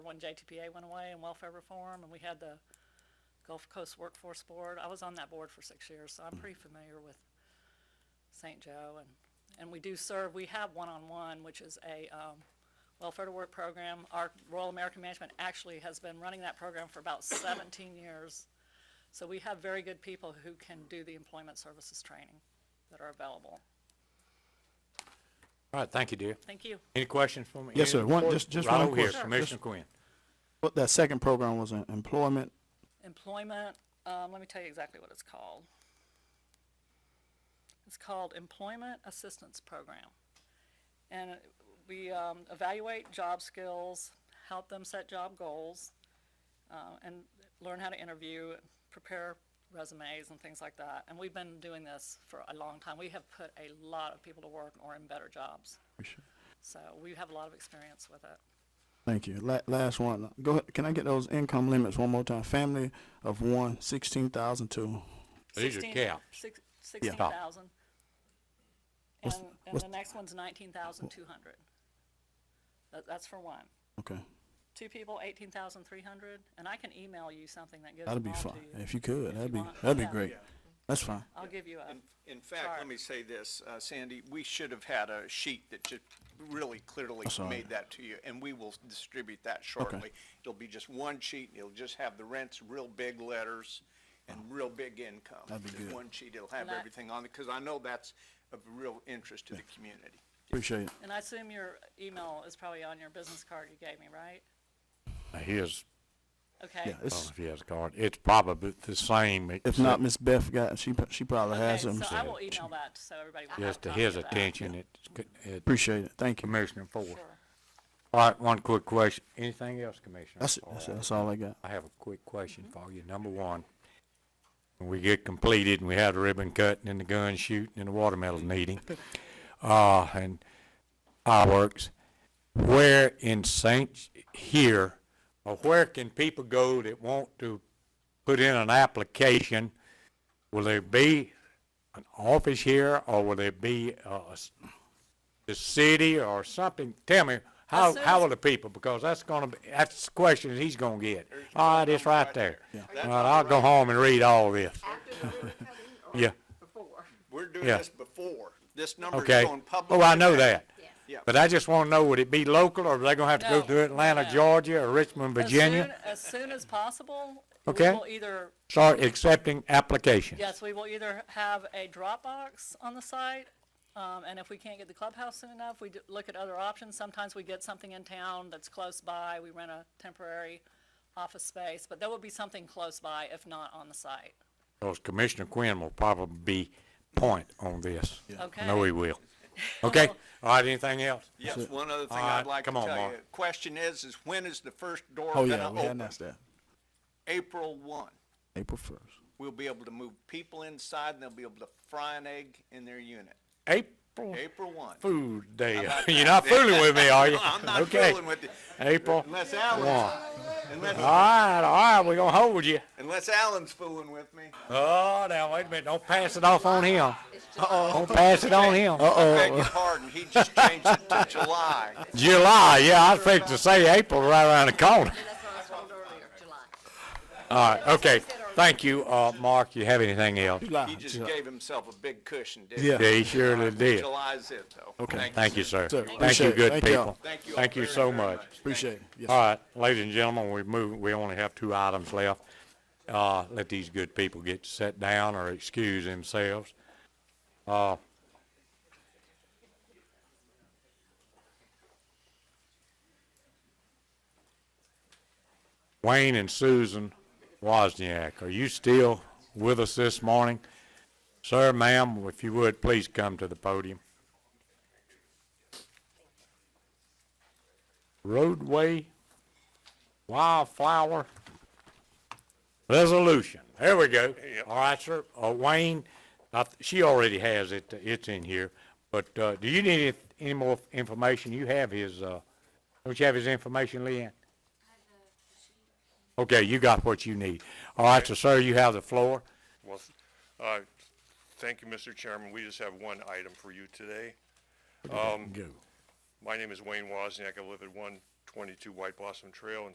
when JTPA went away and welfare reform, and we had the Gulf Coast Workforce Board. I was on that board for six years, so I'm pretty familiar with St. Joe, and, and we do serve, we have one-on-one, which is a um, welfare to work program. Our Royal American Management actually has been running that program for about 17 years. So we have very good people who can do the employment services training that are available. All right, thank you, dear. Thank you. Any questions from any? Yes, sir. One, Right just, just one over here, question. Commissioner Quinn. What that second program was in employment. Employment, um, let me tell you exactly what it's called. It's called Employment Assistance Program. And it- we, um, evaluate job skills, help them set job goals, uh, and learn how to interview, prepare resumes and things like that. And we've been doing this for a long time. We have put a lot of people to work or in better jobs. So we have a lot of experience with it. Thank you. La- last one. Go ahead. Can I get those income limits one more time? Family of one, sixteen thousand two. These are 16 caps. six- 16,000. And, What's- and what's- the next one's 19,200. That, that's for one. Okay, Two people, 18,300, and I can email you something that gives that'd them be all to fine. you. If you could, that'd be want. that'd be Yeah. great. That's fine. I'll give you a, In, in fact, Sorry. let me say this, uh, Sandy, we should have had a sheet that just really clearly That's all right. made that to you, and we will distribute that shortly. It'll be just one sheet, and it'll just have the rents, real big letters, and real big income. That'd be Just good. One sheet, it'll have And I- everything on it, because I know that's of real interest to the community. Appreciate it. and I assume your email is probably on your business card you gave me, right? His, Okay. Yeah, it's, if he has a card, it's probably the same. if not, Miss Beth got she pro- she probably Okay, has so them. I will email that, so everybody will have a Just to copy his of that. attention, it's, co- it, Appreciate it. Thank you. Commissioner Ford. Sure. All right, one quick question. Anything else, Commissioner? That's it. All That's, right. it. that's all I got. I have a quick question for you. Number one, when we get completed and we have the ribbon cutting and the gun shooting and the watermelon eating, uh, and fireworks, where in Saint, here, or where can people go that want to put in an application? Will there be an office here or will there be, uh, s- the city or something? Tell me, how, As soon how as- will the people, because that's gonna be, that's the question he's gonna get. All right, it's right there. All right, I'll go home and read all this. After the ribbon cutting or Yeah, before? We're doing Yeah. this before, this number's okay. going public. Oh, I know that. Yeah. But I just wanna know, would it be local or are they gonna have to go No, through Atlanta, no. Georgia, or Richmond, As Virginia? soon- As soon as possible. Okay. We will either Start accepting applications. Yes, we will either have a Dropbox on the site, um, and if we can't get the clubhouse soon enough, we d- look at other options. Sometimes we get something in town that's close by, we rent a temporary office space, but there will be something close by, if not on the site. Because Commissioner Quinn will probably be point on this. I know Okay. he will. Okay, all right, anything else? Yes, one other thing All right, I'd like to come on, tell you, Mark. question is, is when is the first door Oh gonna yeah, we had open? announced that. April one. April first. we'll be able to move people inside and they'll be able to fry an egg in their unit. April April one. Fool Day. about You're not fooling with me, are you? I'm not Okay. fooling with you. April one. Unless Alan's, All unless, right, all right, we're gonna hold you. unless Alan's fooling with me. Oh, now, wait a minute, don't pass it off on him. Don't pass it on him. I beg your pardon, he just changed it to July. July, yeah, I was fixing to say April right around the corner. That's what I was told earlier, July. All right, okay, thank you, uh, Mark, you have anything else? He just gave himself a big cushion, didn't he? Yeah. Yeah, he surely did. July's it though. Okay. Thank you, Thank you, sir. Sir, Thank appreciate you, it. good Thank y'all. people. Thank you all Thank you very, so very much. much. Appreciate it. Yes. All right, ladies and gentlemen, we move, we only have two items left. Uh, let these good people get set down or excuse themselves. Uh, Uh, Wayne and Susan Wozniak, are you still with us this morning? Sir, ma'am, if you would, please come to the podium. roadway wildflower resolution. There we go. All right, sir. Uh, Wayne, I th- she already has it. uh, It's in here. But, uh, do you need any- any more information? You have his, uh, don't you have his information, Leanne? Okay, you got what you need. All right, so sir, you have the floor. Well, th- uh, thank you, Mr. Chairman. We just have one item for you today. Go. My name is Wayne Wozniak. I live at one twenty-two White Blossom Trail in